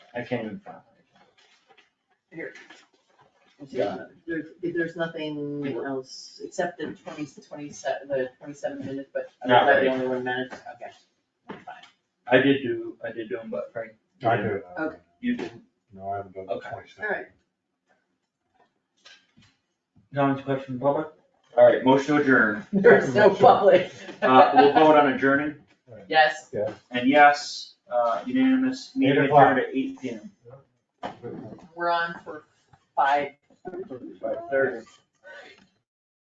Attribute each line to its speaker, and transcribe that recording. Speaker 1: I can't even find it.
Speaker 2: Here. And see,
Speaker 1: Got
Speaker 2: There's, there's nothing else, except the twenty, twenty-seven, the twenty-seven minutes, but I
Speaker 1: Not
Speaker 2: was that
Speaker 1: ready.
Speaker 2: the only one minute, okay. Fine.
Speaker 1: I did do, I did do them, but Frank,
Speaker 3: I do it.
Speaker 2: Okay.
Speaker 1: you didn't.
Speaker 3: No, I haven't done the
Speaker 1: Okay.
Speaker 3: twenty-seven.
Speaker 2: All right.
Speaker 1: Comments, questions, public? All right, motion to adjourn.
Speaker 2: There's no public.
Speaker 1: Uh, we'll vote on adjourning
Speaker 2: Yes,
Speaker 1: and yes, uh, unanimous, meeting
Speaker 3: Eight o'clock.
Speaker 1: adjourned at eight P M.
Speaker 2: we're on for five
Speaker 1: Five thirty.